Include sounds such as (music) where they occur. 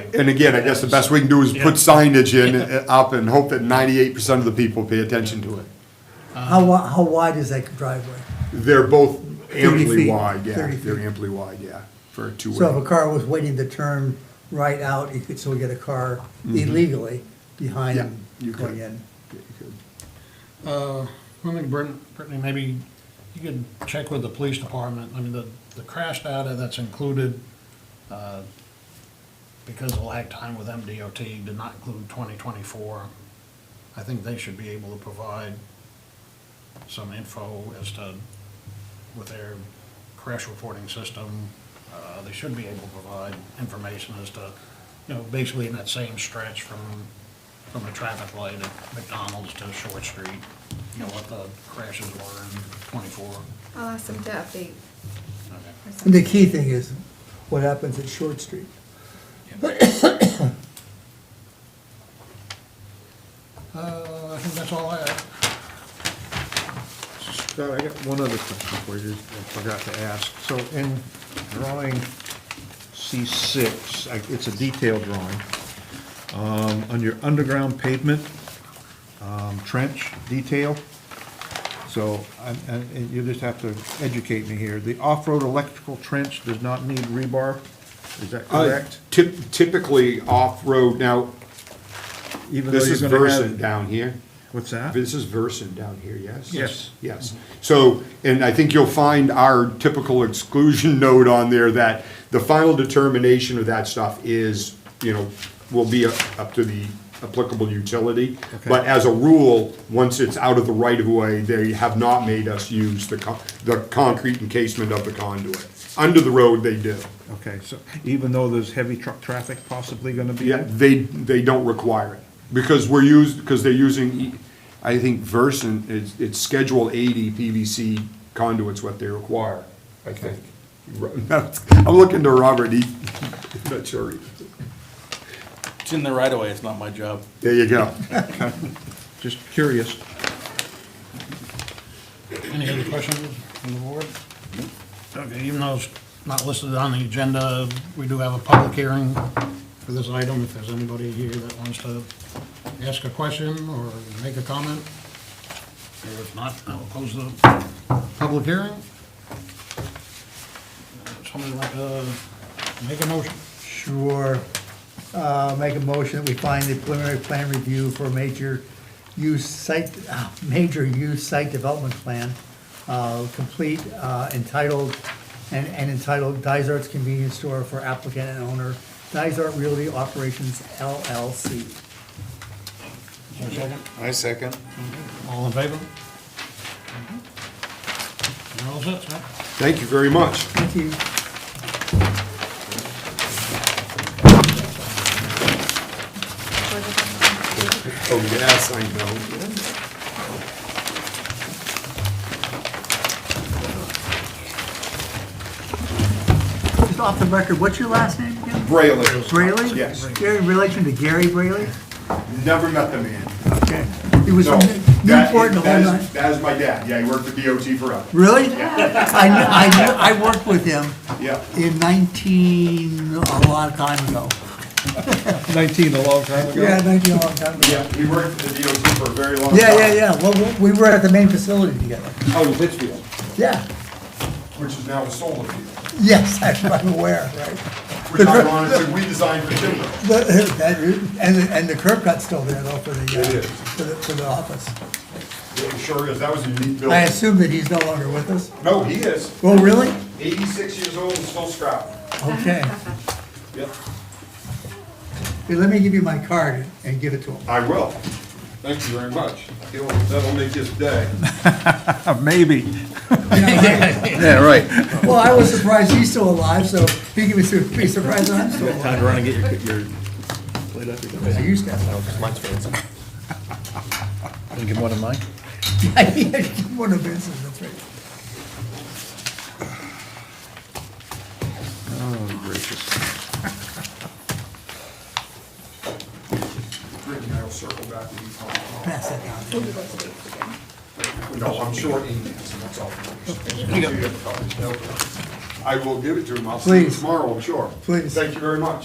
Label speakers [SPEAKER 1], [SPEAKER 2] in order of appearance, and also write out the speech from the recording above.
[SPEAKER 1] And again, I guess the best we can do is put signage in, uh, up, and hope that ninety-eight percent of the people pay attention to it.
[SPEAKER 2] How wi- how wide is that driveway?
[SPEAKER 1] They're both
[SPEAKER 2] 30
[SPEAKER 1] amply
[SPEAKER 2] feet,
[SPEAKER 1] wide, yeah,
[SPEAKER 2] 30
[SPEAKER 1] they're
[SPEAKER 2] feet.
[SPEAKER 1] amply wide, yeah, for a
[SPEAKER 2] So if a
[SPEAKER 1] two-way.
[SPEAKER 2] car was waiting to turn right out, you could still get a car illegally behind
[SPEAKER 1] Mm-hmm. Yeah,
[SPEAKER 2] him
[SPEAKER 1] you
[SPEAKER 2] going
[SPEAKER 1] could.
[SPEAKER 2] in.
[SPEAKER 3] Uh, I think Brit- Brittany, maybe you could check with the police department, I mean, the, the crash data that's included, uh, because of lag time with MDOT did not include twenty twenty-four. I think they should be able to provide some info as to, with their crash reporting system, uh, they should be able to provide information as to, you know, basically in that same stretch from, from the traffic light at McDonald's to Short Street, you know, what the crashes were in twenty-four.
[SPEAKER 4] I'll ask them to update.
[SPEAKER 3] Okay.
[SPEAKER 4] or
[SPEAKER 2] And the
[SPEAKER 4] something.
[SPEAKER 2] key thing is what happens at Short Street.
[SPEAKER 3] Uh, I think that's all I have.
[SPEAKER 5] Scott, I got one other question for you, I forgot to ask. So in drawing C6, I- it's a detailed drawing, um, on your underground pavement um, trench detail, so, I'm- and and you just have to educate me here, the off-road electrical trench does not need rebar, is that
[SPEAKER 1] Uh,
[SPEAKER 5] correct?
[SPEAKER 1] typ- Typically, off-road, now,
[SPEAKER 5] Even though
[SPEAKER 1] this
[SPEAKER 5] you're
[SPEAKER 1] is
[SPEAKER 5] gonna have-
[SPEAKER 1] Versant down here.
[SPEAKER 5] What's that?
[SPEAKER 1] This is Versant down here, yes?
[SPEAKER 5] Yes.
[SPEAKER 1] Yes. So, and I think you'll find our typical exclusion (laughs) note on there that the final determination of that stuff is, you know, will be up to the applicable utility.
[SPEAKER 5] Okay.
[SPEAKER 1] But as a rule, once it's out of the right of way, they have not made us use the, con- the concrete encasement of the conduit. Under the road, they do.
[SPEAKER 5] Okay, so even though there's heavy truck traffic possibly gonna be
[SPEAKER 1] Yeah,
[SPEAKER 5] there?
[SPEAKER 1] they, they don't require it, because we're used, because they're using, I think Versant, it's, it's Schedule eighty PVC conduits what they require, I think. (laughs) I'm looking to Robert, he, (laughs) not sure.
[SPEAKER 6] It's in the right of way, it's not my job.
[SPEAKER 1] There you go.
[SPEAKER 5] Just curious.
[SPEAKER 3] Any other questions from the board? Okay, even though it's not listed on the agenda, we do have a public hearing for this item. If there's anybody here that wants to ask a question or make a comment. Or if not, I'll close the public hearing. Somebody like to make a motion?
[SPEAKER 2] Sure. Uh, make a motion that we find the preliminary plan review for major use site, uh, major use site development plan, uh, complete, uh, entitled, and, and entitled Dysart's Convenience Store for applicant and owner, Dysart Realty Operations LLC.
[SPEAKER 3] Is there a second?
[SPEAKER 6] I second.
[SPEAKER 3] All in favor? You're all set, sir?
[SPEAKER 1] Thank you very much.
[SPEAKER 2] Thank you.
[SPEAKER 1] Oh, yes, I know.
[SPEAKER 2] Just off the record, what's your last name again?
[SPEAKER 1] Brayley.
[SPEAKER 2] Brayley?
[SPEAKER 1] Yes.
[SPEAKER 2] You're in relation to Gary Brayley?
[SPEAKER 1] Never met the man.
[SPEAKER 2] Okay. He was
[SPEAKER 1] No,
[SPEAKER 2] from
[SPEAKER 1] that
[SPEAKER 2] Newport
[SPEAKER 1] is-
[SPEAKER 2] the whole
[SPEAKER 1] that is-
[SPEAKER 2] nine.
[SPEAKER 1] That is my dad, yeah, he worked for DOT forever,
[SPEAKER 2] Really? I knew, I knew, I worked with him
[SPEAKER 1] yeah.
[SPEAKER 2] in nineteen, a long time ago.
[SPEAKER 5] 19 a long time ago?
[SPEAKER 2] nineteen, a long time
[SPEAKER 1] Yeah, he worked for the DOT for a very long time.
[SPEAKER 2] Yeah, yeah, yeah, well, we we were at the main facility together,
[SPEAKER 6] Oh,
[SPEAKER 1] Out of Litchfield,
[SPEAKER 2] yeah,
[SPEAKER 1] which is now a solar field.
[SPEAKER 2] yes, (laughs) I'm aware, right?
[SPEAKER 1] Which ironically, we designed for timber.
[SPEAKER 2] The- that- And, and the curb cut's still there though for the, uh,
[SPEAKER 1] It is.
[SPEAKER 2] for the, for the office.
[SPEAKER 1] It sure is, that was a unique
[SPEAKER 2] I
[SPEAKER 1] building.
[SPEAKER 2] assume that he's no longer with us?
[SPEAKER 1] No, he is,
[SPEAKER 2] Oh, really?
[SPEAKER 1] eighty-six years old and still scrapping.
[SPEAKER 2] Okay,
[SPEAKER 1] Yep.
[SPEAKER 2] Here, let me give you my card and give it to him.
[SPEAKER 1] I will. Thank you very much. He'll- That'll make his day.
[SPEAKER 5] Oh,
[SPEAKER 6] (laughs)
[SPEAKER 5] Maybe. Yeah, right.
[SPEAKER 2] Well, I was surprised he's still alive, so he can be su- be surprised I'm still alive.
[SPEAKER 6] Time to run and get your, your plate up. Can
[SPEAKER 2] I used to have (laughs)
[SPEAKER 6] you give one of mine?
[SPEAKER 2] that. One of Vince's, that's right.
[SPEAKER 1] Rick and I will circle back and be fine.
[SPEAKER 2] Pass that down.
[SPEAKER 1] No, I'm sure he is, and that's all. I will give it to him, I'll see him
[SPEAKER 2] Please.
[SPEAKER 1] tomorrow, I'm sure.
[SPEAKER 2] Please.
[SPEAKER 1] Thank you very much.